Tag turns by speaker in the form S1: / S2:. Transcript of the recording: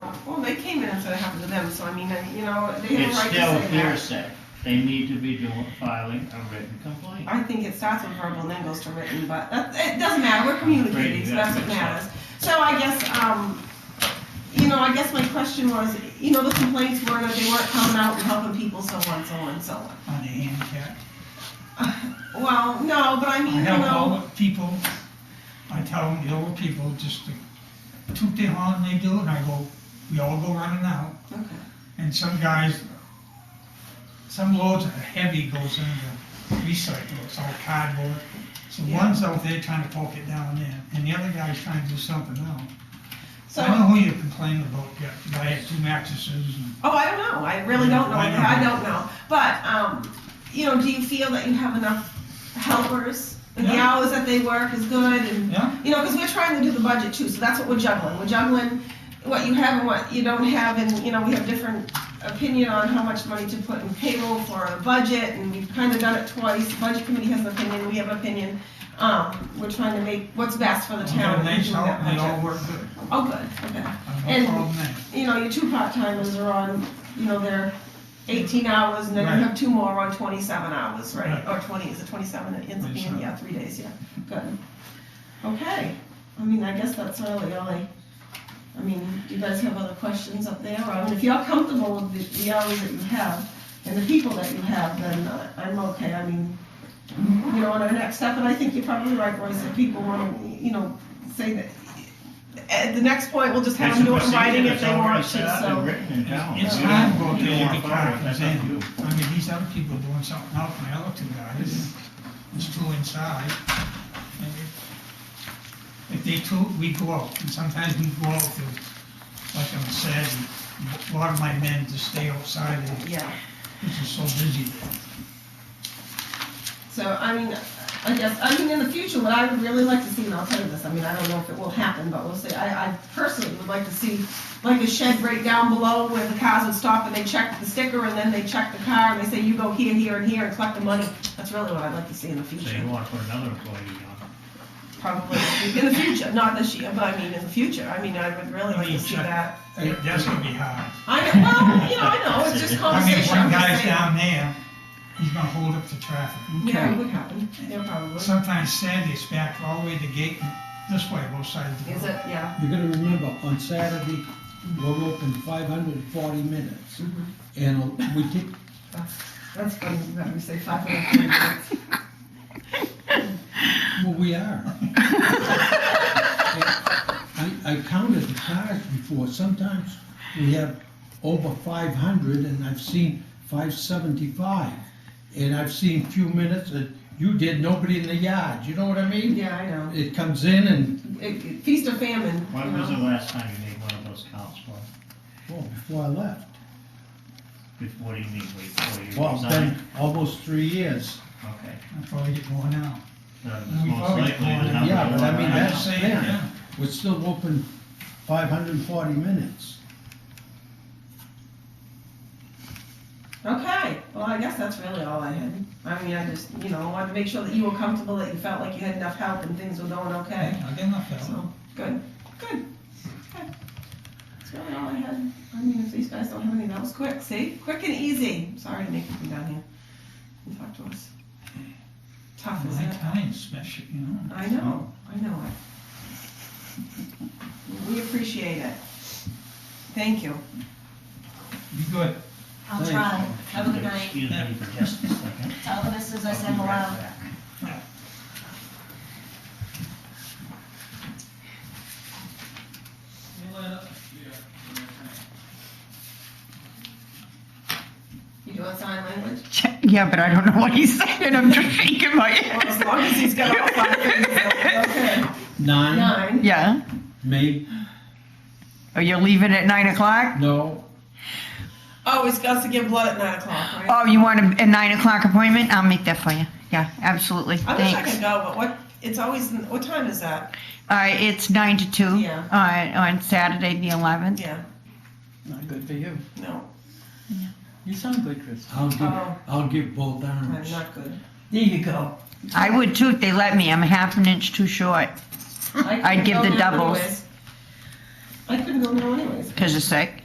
S1: Well, they came in and said it happened to them, so I mean, uh, you know, they have a
S2: It's
S1: right to
S2: still
S1: say that.
S2: hearsay. They need to be doing, filing a written complaint.
S1: I think it starts with verbal, then goes to written, but that, it doesn't matter, we're communicating, so that's what matters. So I guess, um, you know, I guess my question was, you know, the complaints were that they weren't coming out and helping people, so on, so on, so on.
S3: on the handicap.
S1: Well, no, but I mean,
S3: I
S1: you
S3: help all
S1: know,
S3: the people, I tell them, the old people, just to toot their horn and they do it, and I go, we all go running out.
S1: okay,
S3: And some guys, some loads of heavy goes in the recycle, it's all cardboard. So
S1: Yeah.
S3: one's out there trying to poke it down there, and the other guy's trying to do something else.
S1: so,
S3: I don't know who you're complaining about yet, the guy had two mattresses and
S1: oh, I don't know, I really don't know,
S3: I know.
S1: I don't know. But, um, you know, do you feel that you have enough helpers? That the
S3: Yeah.
S1: hours that they work is good and
S3: Yeah,
S1: You know, because we're trying to do the budget too, so that's what we're juggling. We're juggling what you have and what you don't have, and, you know, we have different opinion on how much money to put in payroll for a budget, and we've kind of done it twice. The Budget committee has an opinion, we have an opinion. Um, we're trying to make what's best for the
S3: we got
S1: town.
S3: a
S1: and
S3: nice
S1: do that
S3: house, they all
S1: budget.
S3: work good,
S1: Oh, good, okay.
S3: I've
S1: And-
S3: no problem there.
S1: You know, your two part-timers are on, you know, they're eighteen hours, and then you
S3: Right.
S1: have two more on twenty-seven hours, right? Or twenty, is it twenty-seven? It ends up being,
S3: 27.
S1: yeah, three days, yeah. Good. Okay, I mean, I guess that's really all I, I mean, do you guys have other questions up there? I mean, if you're comfortable with the, the hours that you have and the people that you have, then uh, I'm okay, I mean, you know, on our next step, and I think you're probably right, Royce, if people wanna, you know, say that, at the next point, we'll just have
S2: It's
S1: them
S2: a
S1: do it in
S2: procedure
S1: writing if
S2: that's
S1: they
S2: already
S1: want
S2: set
S1: to,
S2: up and
S1: so.
S2: Written in town.
S3: It's
S2: You
S3: hard
S2: don't-
S3: going
S2: you
S3: to
S2: don't wanna
S3: get the
S2: follow it.
S3: car,
S2: That's
S3: man.
S2: up to you.
S3: I mean, these other people doing something else, and the other two guys, there's two inside. and if- If they two, we go out, and sometimes we go out to, like I'm saying, a lot of my men just stay outside, and
S1: Yeah,
S3: it's just so busy there.
S1: so, I mean, I guess, I mean, in the future, what I would really like to see, and I'll tell you this, I mean, I don't know if it will happen, but we'll see, I, I personally would like to see, like a shed right down below where the cars would stop and they check the sticker and then they check the car and they say, you go here, here, and here and collect the money. That's really what I'd like to see in the
S2: So you
S1: future,
S2: wanna put another employee on.
S1: probably, in the future, not this year, but I mean, in the future, I mean, I would really like to see that.
S3: Uh, That's gonna be hard.
S1: I know, well, you know, I know, it's just
S3: I mean,
S1: conversation.
S3: one
S1: I'm just
S3: guy's
S1: saying.
S3: down there, he's gonna hold up the traffic.
S1: Yeah, it would happen, yeah, probably. Is
S3: Sometimes Sandy's back all the way to gate, this way, both sides of the
S1: it,
S3: road.
S1: yeah.
S4: You gotta remember, on Saturday, we're open five hundred and forty minutes, and uh, we keep,
S1: That's funny, that we say five hundred minutes.
S4: well, we are. And I, I counted the cars before, sometimes we have over five hundred, and I've seen five seventy-five. And I've seen few minutes that you did, nobody in the yard, you know what I mean?
S1: Yeah, I know.
S4: It comes in and,
S1: It- it- Feast or famine, you
S2: When was the
S1: know.
S2: last time you made one of those counts for?
S4: oh, before I left,
S2: Before you mean, before you
S4: well, it's been
S2: resign?
S4: almost three years.
S2: Okay.
S3: I'll probably get more now.
S2: So it's
S3: We've
S2: most
S3: always
S2: likely the
S3: gone-
S2: number
S4: Yeah, but I
S2: one right
S3: I'm
S4: mean,
S2: now.
S4: that's-
S3: just saying,
S4: yeah.
S3: yeah.
S4: We're still open five hundred and forty minutes.
S1: Okay, well, I guess that's really all I had. I mean, I just, you know, wanted to make sure that you were comfortable, that you felt like you had enough help and things were going okay.
S3: I get enough help.
S1: So, good, good, okay. That's really all I had. I mean, if these guys don't have anything else, quick, see, quick and easy. Sorry to make you come down here and talk to us. Tough,
S3: My
S1: isn't it?
S3: time's special, you know.
S1: I know, I know it. We appreciate it. Thank you.
S3: Be good.
S5: I'll
S4: Thanks.
S5: try. Have a good night.
S2: Excuse me for just a second.
S5: Tell the missus I
S2: I'll
S5: said
S2: be right
S5: hello.
S2: back.
S1: You doing sign language?
S6: Yeah, but I don't know what he's saying. I'm just shaking my
S1: Well, as
S6: head.
S1: long as he's got all five things, it'll be okay.
S4: Nine,
S1: Nine.
S6: Yeah.
S4: maybe,
S6: Are you leaving at nine o'clock?
S4: no,
S1: Oh, he's got to give blood at nine o'clock, right?
S6: Oh, you want a, a nine o'clock appointment? I'll make that for you. Yeah, absolutely.
S1: I wish I
S6: Thanks.
S1: could go, but what, it's always, what time is that?
S6: Uh, it's nine to two.
S1: Yeah.
S6: Uh, on Saturday the eleventh.
S1: Yeah,
S7: Not good for you.
S1: no,
S7: You sound good, Chris.
S4: I'll give,
S1: Oh.
S4: I'll give both
S1: I'm
S4: arms.
S1: not good.
S7: There you go.
S6: I would too if they let me. I'm half an inch too short.
S1: I
S6: I'd give
S1: go
S6: the
S1: there
S6: doubles.
S1: anyways.
S8: I couldn't go now anyways.
S1: because you're sick.